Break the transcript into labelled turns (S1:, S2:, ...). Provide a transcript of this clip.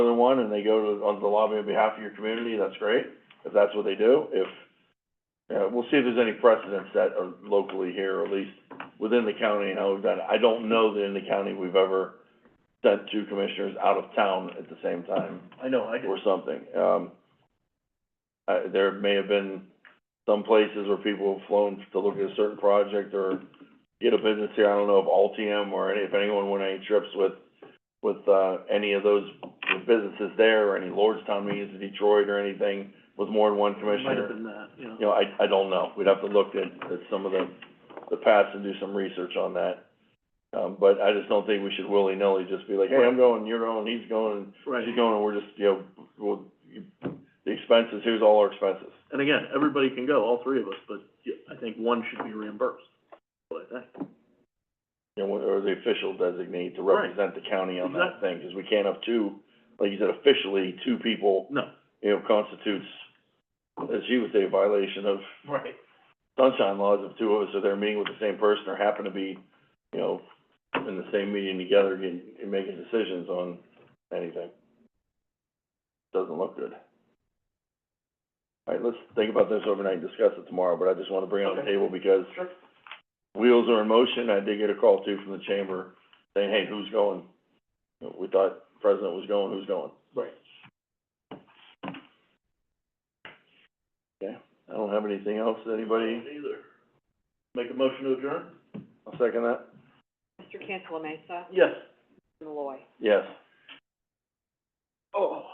S1: one and they go to, on the lobby on behalf of your community, that's great, if that's what they do, if, yeah, we'll see if there's any precedents that are locally here, or at least within the county and how we've done it. I don't know that in the county we've ever sent two commissioners out of town at the same time
S2: I know, I
S1: or
S2: did,
S1: something. Um, uh, there may have been some places where people have flown to look at a certain project or get a business here. I don't know if Altium or any, if anyone went on any trips with, with, uh, any of those businesses there or any Lordstown meetings in Detroit or anything with more than one
S2: it might
S1: commissioner.
S2: have been that, you know.
S1: You know, I, I don't know. We'd have to look at, at some of the, the past and do some research on that. Um, but I just don't think we should willy-nilly just be like, hey, I'm going, you're going, he's going,
S2: Right,
S1: She's going, we're just, you know, well, you- the expenses, here's all our expenses.
S2: and again, everybody can go, all three of us, but yeah, I think one should be reimbursed, what I think.
S1: You know, or the official designate to
S2: Right.
S1: represent the county on that thing, because we can't have two, like you said, officially, two people,
S2: No.
S1: you know, constitutes, as you would say, a violation of
S2: Right.
S1: sunshine laws if two of us are there meeting with the same person or happen to be, you know, in the same meeting together and, and making decisions on anything. Doesn't look good. All right, let's think about this overnight and discuss it tomorrow, but I just wanna bring it on the
S2: Okay.
S1: table because
S2: Sure.
S1: wheels are in motion. I did get a call too from the chamber saying, hey, who's going? You know, We thought president was going, who's going?
S2: Right.
S1: I don't have anything else. Anybody?
S2: Either. Make a motion to adjourn?
S1: I'll second that.
S3: Mr. Cantala Mesa,
S2: Yes.
S3: Malloy.
S1: Yes.
S2: Oh.